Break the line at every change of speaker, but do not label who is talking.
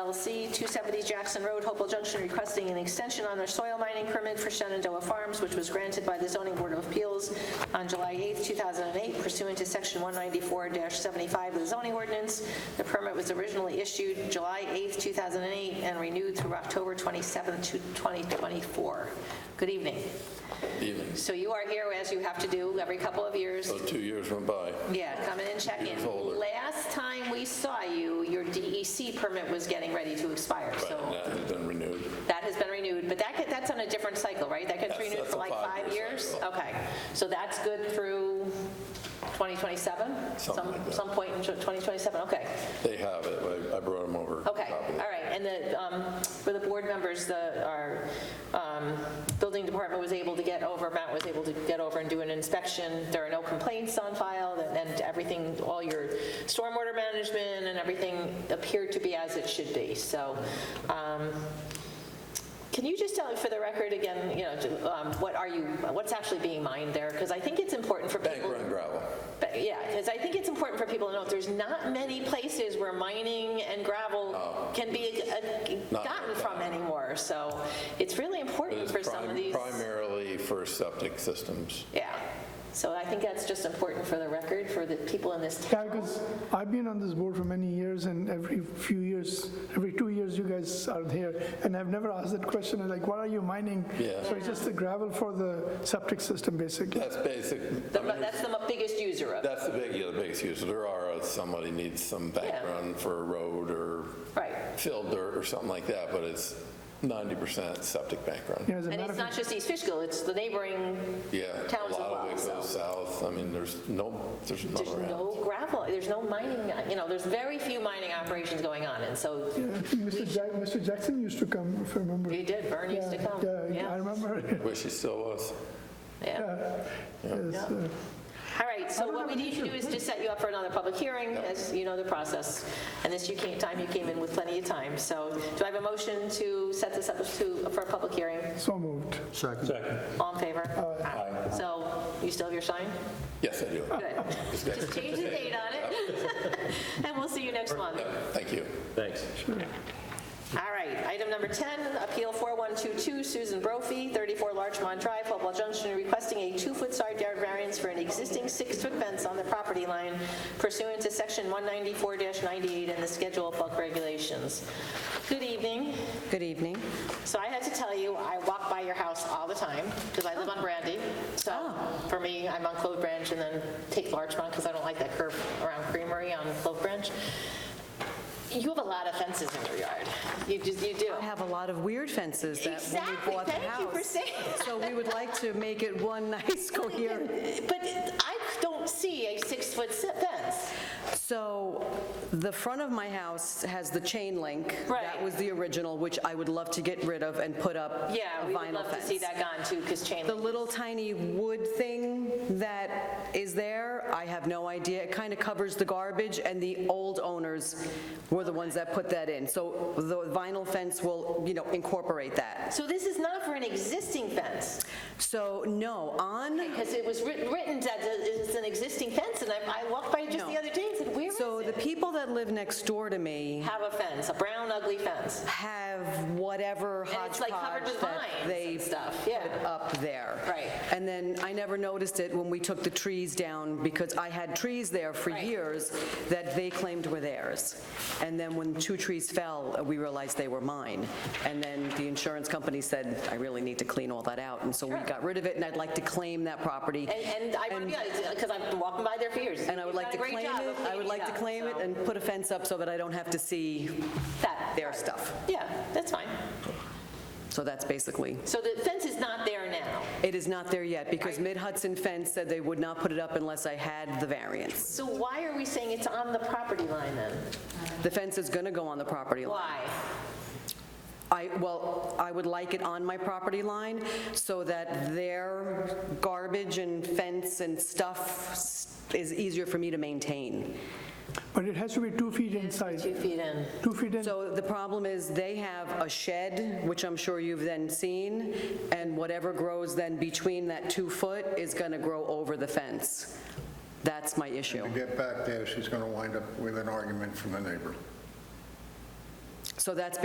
LLC, 270 Jackson Road, Hopewell Junction, requesting an extension on their soil mining permit for Shenandoah Farms, which was granted by the Zoning Board of Appeals on July 8, 2008 pursuant to Section 194-75 of the zoning ordinance. The permit was originally issued July 8, 2008, and renewed through October 27, 2024. Good evening.
evenings.
So you are here, as you have to do every couple of years,
So two years went by.
yeah, come in and check in.
Years older.
Last time we saw you, your DEC permit was getting ready to expire,
Right, and
so
that has been renewed.
that has been renewed, but that, get- that's on a different cycle, right? That gets
That's-
renewed
that's
for
a
like five
five-year
years?
cycle.
Okay, so that's good through 2027?
Something
Some-
like that.
Some point in 2027, okay.
They have it, I- I brought them over.
Okay,
Copy.
all right, and the, um, for the board members, the, our um, building department was able to get over, Matt was able to get over and do an inspection. There are no complaints on file, and- and everything, all your stormwater management and everything appeared to be as it should be. So um, can you just tell, for the record again, you know, to, um, what are you, what's actually being mined there? Because I think it's important for people.
Bank run gravel.
But, Yeah, because I think it's important for people to know, there's not many places where mining and gravel can be uh,
Oh. Not
gotten
like
from
that.
anymore, so it's really
But
important
it's
for some
prim-
of these.
Primarily for septic systems.
Yeah, so I think that's just important for the record, for the people in this
Yeah,
town.
because I've been on this board for many years, and every few years, every two years, you guys are here, and I've never asked that question, and like, what are you mining?
Yeah.
So it's just the gravel for the septic system, basically.
That's basic, I mean,
The mo- That's the mo- biggest user of, it.
that's the big, yeah, the biggest use. There are, uh, somebody needs some bank
Yeah.
run for a road or
right.
fill dirt or something like that, but it's 90% septic bank run.
You know, as a
And
matter
it's
of
not just East Fishkill, it's the neighboring,
Yeah,
Towns as
a lot of
well,
it
so.
goes south. I mean, there's no, there's none
there's
around.
no gravel, there's no mining, you know, there's very few mining operations going on, and so
Yeah, I think Mr. Jack- Mr. Jackson used to come, if I remember.
you did, Vern used to
Yeah,
come.
Yeah, I remember.
Wish he still was.
Yeah.
Yes, uh,
All right, so what we
have an
need to do is just set you up for another public hearing, as you know the process. And this you came, time you came in with plenty of time. So do I have a motion to set this up to, for a public hearing?
So moved.
All in favor? Aye. So you still have your sign?
Yes, I do.
Good. Just change the date on it. And we'll see you next month.
Thank you.
Thanks.
All right, item number 10, Appeal 4122, Susan Brophy, 34 Larchmont Drive, Hopewell Junction, requesting a two-foot side yard variance for an existing six-foot fence on the property line pursuant to Section 194-98 and the Schedule of Bulk Regulations. Good evening.
Good evening.
So I had to tell you, I walk by your house all the time because I live on Brandy. So
Oh.
for me, I'm on Clove Branch and then take Larchmont because I don't like that curve around Creamery on Clove Branch. You have a lot of fences in your yard. You just, you do.
I have a lot of weird fences that when we
Exactly,
bought the
thank
house.
you for saying
So we would like to make it one nice coherent.
But I don't see a six-foot fence.
So the front of my house has the chain link.
Right.
That was the original, which I would love to get rid of and put up a vinyl fence.
Yeah, we would love to see that gone too because chain
The
link.
little tiny wood thing that is there, I have no idea. It kind of covers the garbage, and the old owners were the ones that put that in. So the vinyl fence will, you know, incorporate that.
So this is not for an existing fence
So, no, on...
because it was writ- written that it's an existing fence and I I walked by just the
No.
other day and said, where is
So the
it?
people that live next door to me
Have a fence, a brown ugly fence.
have whatever
And it's,
hodgepodge
like, covered with
that
vines
they
and stuff, yeah.
put up there.
Right.
And then I never noticed it when we took the trees down because I had trees there for
Right.
years that they claimed were theirs. And then when two trees fell, uh, we realized they were mine. And then the insurance company said, I really need to clean all that out. And so we got rid of it, and I'd like to claim that property.
And- And I want to, because I've been walking by there for years.
And I would
You've
like
done a
to
great
claim it,
job of
I would
cleaning
like to
up,
claim it
so
and put a fence up so that I don't have to see
that-
their stuff.
Yeah, that's fine.
So that's basically,
So the fence is not there now.
it is not there yet, because Mid-Hudson Fence said they would not put it up unless I had the variance.
So why are we saying it's on the property line then?
The fence is going to go on the property line.
Why?
I, well, I would like it on my property line, so that their garbage and fence and stuff s- is easier for me to maintain.
But it has to be two feet
Two
inside,
feet in.
two feet in.
So the problem is, they have a shed, which I'm sure you've then seen, and whatever grows then between that two foot is going to grow over the fence. That's my issue.
To get back there, she's going to wind up with an argument from the neighbor.
So that's